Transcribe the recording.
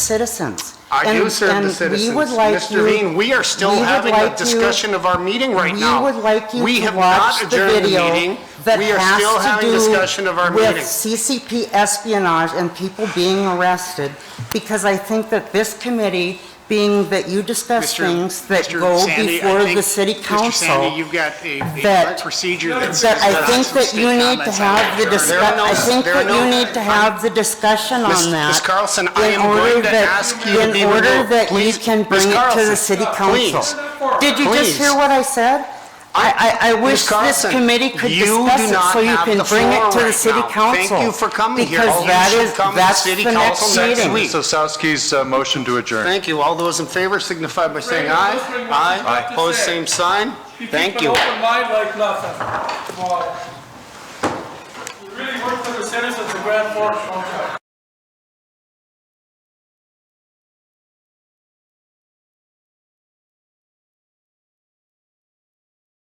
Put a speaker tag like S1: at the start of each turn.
S1: citizens.
S2: I do
S1: And-
S2: serve
S1: and
S2: the
S1: we
S2: citizens.
S1: would like
S2: Mr.
S1: you-
S2: Bean, we are still
S1: we would
S2: having
S1: like
S2: a
S1: you-
S2: discussion of our meeting right
S1: we
S2: now.
S1: would like you
S2: We
S1: to
S2: have
S1: watch
S2: not
S1: the
S2: adjourned the
S1: video
S2: meeting.
S1: that
S2: We are still
S1: has to
S2: having
S1: do
S2: discussion of our meeting.
S1: With CCP espionage and people being arrested, because I think that this committee, being that you discuss
S2: Mr.
S1: things that
S2: Mr.
S1: go
S2: Sandy, I
S1: before the
S2: think-
S1: city
S2: Mr. Sandy,
S1: council,
S2: you've got a- a
S1: that-
S2: procedure that says
S1: that I
S2: that
S1: think that you need to have the
S2: There are
S1: discuss,
S2: no-
S1: I think
S2: there are
S1: that you
S2: no-
S1: need to have the discussion
S2: Miss-
S1: on that.
S2: Miss Carlson, I
S1: in
S2: am going
S1: order
S2: to
S1: that-
S2: ask you to be
S1: In order
S2: removed.
S1: that you
S2: Please,
S1: can
S2: Miss
S1: bring it to
S2: Carlson,
S1: the city
S2: please.
S1: council. Did you just hear
S2: Please.
S1: what I said? I, I, I wish this
S2: Carlson,
S1: committee could
S2: you do
S1: discuss it
S2: not
S1: so you
S2: have
S1: can
S2: the
S1: bring
S2: floor
S1: it to the
S2: right
S1: city
S2: now. Thank
S1: council.
S2: you for coming here.
S1: Because
S2: You
S1: that
S2: should
S1: is,
S2: come to
S1: that's
S2: city
S1: the
S2: council
S1: next
S2: next week.
S1: meeting.
S2: Please.
S3: So Sowski's uh, motion to adjourn.
S2: Thank you. All those in favor signify by saying
S4: Brandon,
S2: aye.
S4: those three ones you
S2: Aye.
S4: have to
S2: Opposed,
S4: say.
S2: same sign. Thank you.
S4: keep an open mind like nothing. Wow. You really work for the citizens of Grand Forks, don't you?